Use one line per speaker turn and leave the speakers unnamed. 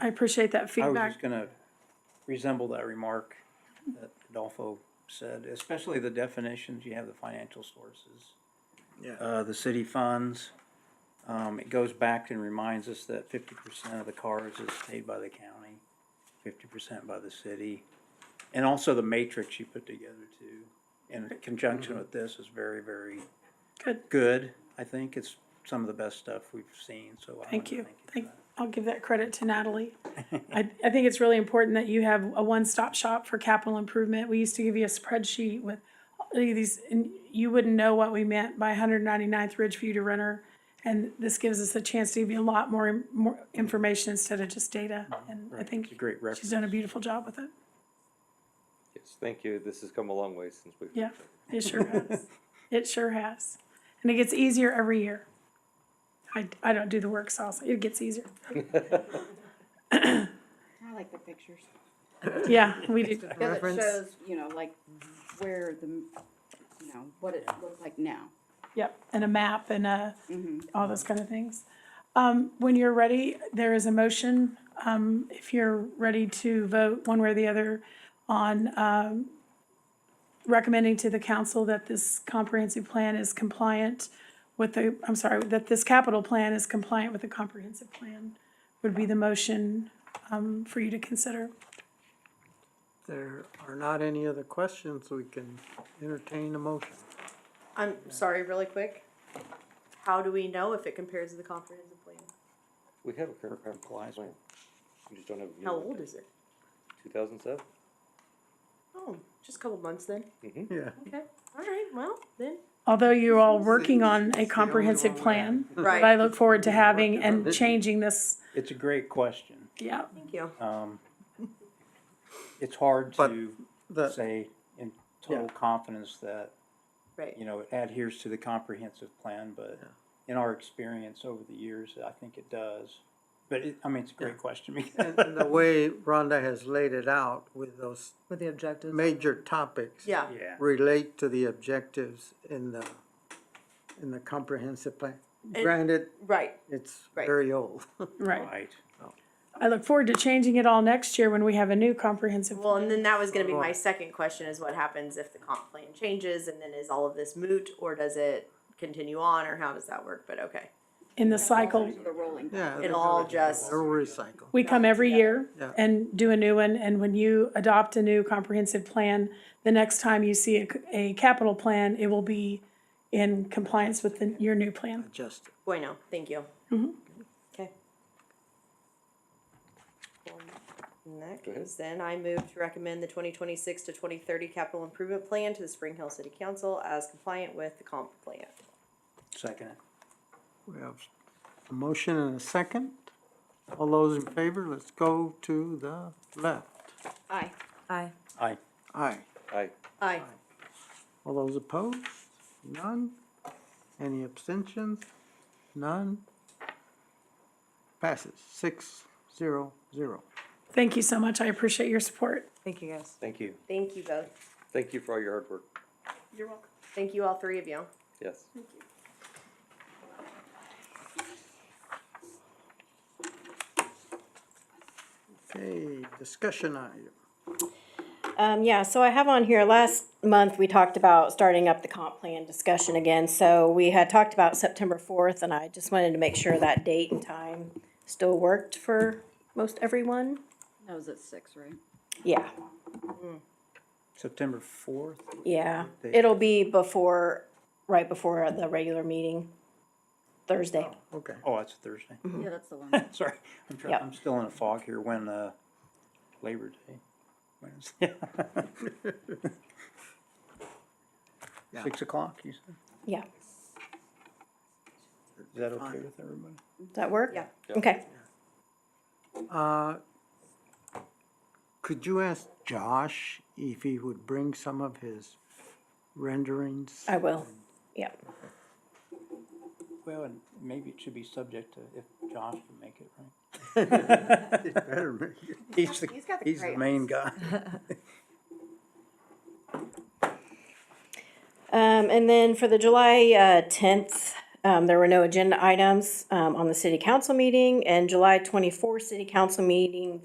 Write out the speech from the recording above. I appreciate that
I was
feedback.
just gonna resemble that remark that Adolfo said, especially the definitions, you have the financial sources.
Yeah.
Uh, the city funds, um, it goes back and reminds us that fifty percent of the cars is paid by the county, fifty percent by the city. And also the matrix you put together too, in conjunction with this is very, very
Mm-hmm. Good.
good, I think, it's some of the best stuff we've seen, so. I wanna
Thank you.
for
Thank,
that.
I'll give that credit to Natalie. I, I think it's really important that you have a one-stop shop for capital improvement. We used to give you a spreadsheet with all of these, and you wouldn't know what we meant by 199th Ridgeview to Renner. And this gives us a chance to give you a lot more, more information instead of just data. And I
Uh-huh. It's a
think
great reference.
she's done a beautiful job with it.
Yes, thank you. This has come a long way since we've.
Yeah, it sure has. It sure has. And it gets easier every year. I, I don't do the work salsa. It gets easier.
I like the pictures.
Yeah, we do.
Because it
Reference.
shows, you know, like where the, you know, what it looks like now.
Yep, and a map and a, all those kind of things. Um, when you're ready, there is a motion, um, if you're ready to vote one way or the other on, um, recommending to the council that this comprehensive plan is compliant with the, I'm sorry, that this capital plan is compliant with the comprehensive plan would be the motion, um, for you to consider.
There are not any other questions, we can entertain a motion.
I'm sorry, really quick. How do we know if it compares to the comprehensive plan?
We have a current
Complies.
compliance plan. We just don't have.
How old is it?
Two thousand seven.
Oh, just a couple months then.
Mm-hmm.
Yeah.
Okay, all right, well, then.
Although you're all working on a comprehensive plan, but I
Right,
look forward to having and changing this,
It's a great question.
yeah.
thank you.
Um, it's hard
But
to
The,
say in total confidence that,
Right,
you know, it adheres to the comprehensive plan, but
Yeah.
in our experience over the years, I think it does. But it, I mean, it's a great question. because-
and and the way Rhonda has laid it out with those
With the objectives.
major topics.
yeah,
Yeah,
Relate to the objectives in the, in the comprehensive plan.
It-
Granted,
right,
it's
Right.
very old.
Right.
right.
I look forward to changing it all next year when we have a new comprehensive.
Well, and then that was gonna be my second question is what happens if the comp plan changes and then is all of this moot or does it continue on or how does that work? But okay,
In the cycle,
The rolling.
Yeah.
it all just,
They'll recycle.
we come every year
Yeah.
and do a new one, and when you adopt a new comprehensive plan, the next time you see a, c- a capital plan, it will be in compliance with the, your new plan.
Adjust it.
bueno, thank you. Okay. In that
Go ahead.
case, then I move to recommend the twenty twenty-six to twenty thirty capital improvement plan to the Spring Hill City Council as compliant with the comp plan.
Second, it.
We have a motion and a second. All those in favor, let's go to the left.
Aye.
Aye.
aye.
Aye.
I,
Aye.
All those opposed? None? Any abstentions? None? Passes six, zero, zero.
Thank you so much. I appreciate your support.
Thank you, guys.
Thank you.
Thank you both.
thank you for all your hard work.
You're welcome.
Thank you, all three of you.
Yes.
Okay, discussion item.
Um, yeah, so I have on here, last month, we talked about starting up the comp plan discussion again. So we had talked about September fourth, and I just wanted to make sure that date and time still worked for most everyone.
That was at six, right?
Yeah,
September fourth,
yeah. It'll be before, right before the regular meeting, Thursday.
Okay.
oh, that's Thursday.
Yeah, that's the one.
Mm-hmm.
Sorry, I'm trying,
Yep.
I'm still in a fog here when, uh, Labor Day. When is-
Yeah.
Six o'clock, you said?
Yeah,
Is that okay
Fine.
with everybody?
does that work?
Yeah.
Okay,
Uh, Could you ask Josh if he would bring some of his renderings?
Oh.
I will. Yeah,
Well, and maybe it should be subject to if Josh can make it, right?
Better make it.
He's the,
He's got the
he's the main guy.
Um, and then for the July, uh, tenth, Um, there were no agenda items, um, on the city council meeting and July twenty-four city council meeting.